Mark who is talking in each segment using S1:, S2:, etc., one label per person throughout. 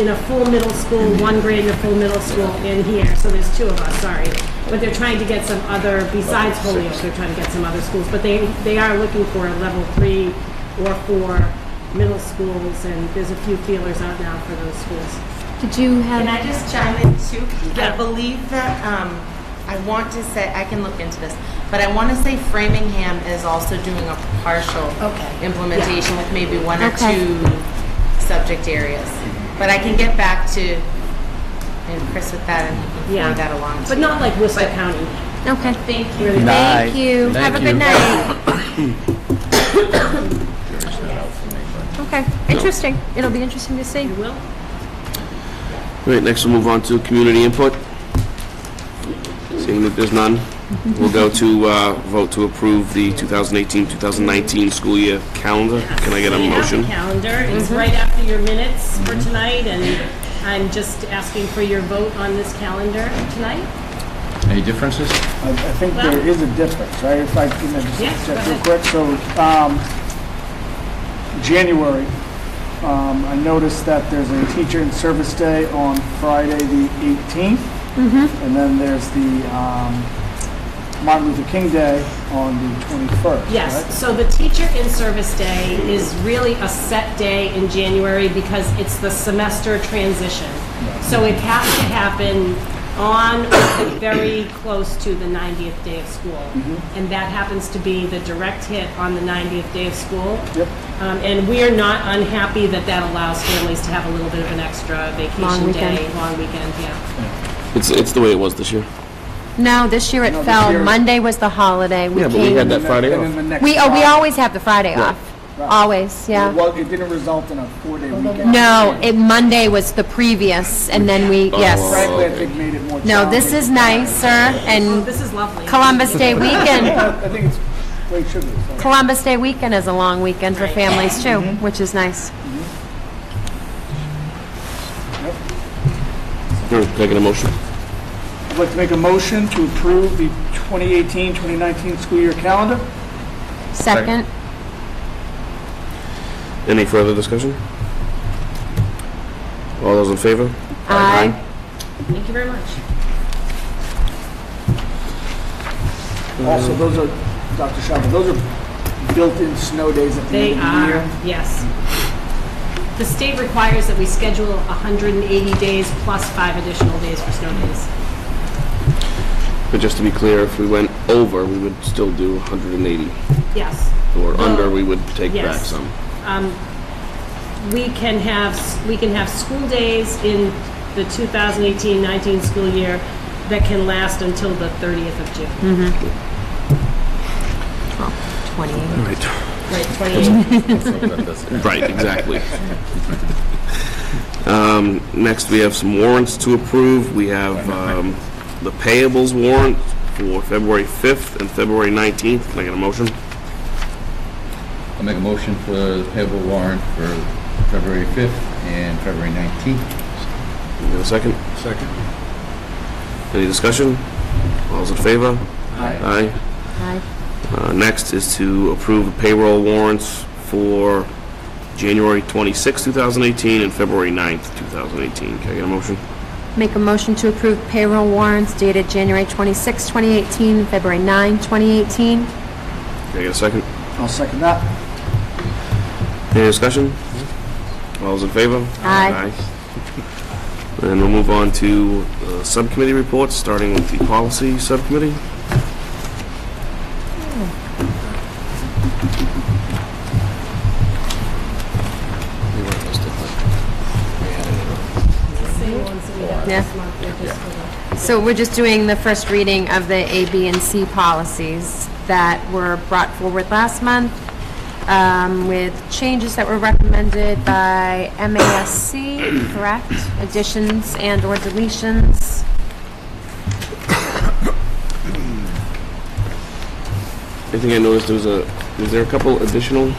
S1: in a full middle school,
S2: Mm-hmm.
S1: one grade in a full middle school in here, so there's two of us, sorry. But they're trying to get some other, besides Holyoke, they're trying to get some other schools, but they, they are looking for level three or four middle schools, and there's a few feelers out now for those schools.
S3: Did you have?
S4: Can I just chime in too?
S1: Yeah.
S4: I believe that, um, I want to say, I can look into this, but I want to say Framingham is also doing a partial
S3: Okay.
S4: implementation with maybe one or
S3: Okay.
S4: two subject areas. But I can get back to, and Chris with that, and he can
S1: Yeah.
S4: forward that along to
S1: But
S4: you.
S1: not like Worcester County.
S3: Okay.
S4: Thank you.
S1: Really.
S3: Thank
S2: Night.
S3: you. Have
S2: Thank
S3: a
S2: you.
S3: good night. Okay, interesting. It'll be interesting to see.
S1: You will?
S2: All right, next we'll move on to community input. Seeing that there's none, we'll go to uh, vote to approve the 2018-2019 school year calendar. Can I get a
S1: We have the
S2: motion? Mm-hmm.
S1: calendar, it's right after your minutes for tonight, and I'm just asking for your vote on this calendar tonight.
S5: Any differences?
S6: I I think there is a difference, right? If I can
S1: Yeah,
S6: just
S1: go
S6: check real
S1: ahead.
S6: quick, so, um, January, um, I noticed that there's a teacher in service day on Friday, the 18th.
S3: Mm-hmm.
S6: And then there's the, um, Martin Luther King Day on the 21st, right?
S1: Yes, so the teacher in service day is really a set day in January because it's the semester transition. So it has to happen on or very close to the 90th day of school.
S6: Mm-hmm.
S1: And that happens to be the direct hit on the 90th day of school.
S6: Yep.
S1: Um, And we are not unhappy that that allows families to have a little bit of an extra vacation
S3: weekend.
S1: day, long weekend, yeah.
S2: It's, it's the way it was this year.
S3: No, this year it
S6: No, this
S3: fell.
S6: year-
S3: Monday was the holiday.
S2: Yeah, but we
S3: came-
S2: had that
S6: And then-
S2: Friday
S6: and then
S2: off.
S6: the next
S3: We, oh, we
S6: Friday.
S3: always have the Friday off.
S6: Right.
S3: Always, yeah.
S6: Well, it didn't result in a four-day weekend.
S3: No, it, Monday was the previous and then we,
S2: Oh.
S3: yes.
S6: Frankly, I think made it more
S3: No, this is
S6: challenging.
S3: nicer
S1: Oh,
S3: and
S1: This is lovely.
S3: Columbus Day weekend,
S6: Yeah, I think it's, well, it should be. so.
S3: Columbus Day weekend is a long weekend for
S1: Right.
S3: families too, which is nice.
S2: All right, Can I get a motion?
S6: I'd like to make a motion to approve the 2018-2019 school year calendar.
S3: Second,
S2: Any further discussion? All those in favor?
S3: Aye.
S1: Thank you very much.
S6: Also, those are, Dr. Shaba, those are built-in snow days at the
S1: They
S6: end of the
S1: are,
S6: year.
S1: yes. The state requires that we schedule 180 days plus five additional days for snow days.
S2: But just to be clear, if we went over, we would still do 180,
S1: Yes.
S2: or
S1: Well,
S2: under, we would take back
S1: yes.
S2: some.
S1: We can have, s- we can have school days in the 2018-19 school year that can last until the 30th of June.
S3: 20.
S1: Right, 28.
S2: Right, exactly. Um, Next, we have some warrants to approve. We have um, the payables warrant for February 5th and February 19th. Can I get a motion?
S5: I'll make a motion for the payable warrant for February 5th and February 19th.
S2: Can I get a second? Second. Any discussion? All's in favor? Aye.
S3: Aye.
S2: Uh, Next is to approve the payroll warrants for January 26, 2018, and February 9th, 2018. Can I get a motion?
S3: Make a motion to approve payroll warrants dated January 26, 2018, and February 9, 2018.
S2: Can I get a second?
S6: I'll second that.
S2: Any discussion? All those in favor?
S3: Aye.
S2: Aye. And we'll move on to uh, subcommittee reports, starting with the policy subcommittee.
S3: So we're just doing the first reading of the A, B, and C policies that were brought forward last month um, with changes that were recommended by MASC, correct? Additions and/or deletions.
S2: I think I noticed there was a, was there a couple additional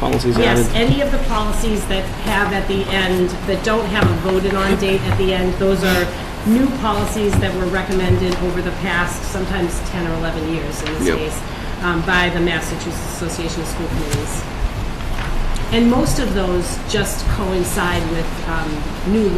S2: policies added?
S1: Yes, any of the policies that have at the end, that don't have a voted on date at the end, those are new policies that were recommended over the past, sometimes 10 or 11 years in this
S2: Yep.
S1: case, um, by the Massachusetts Association of School Committees. And most of those just coincide with um, new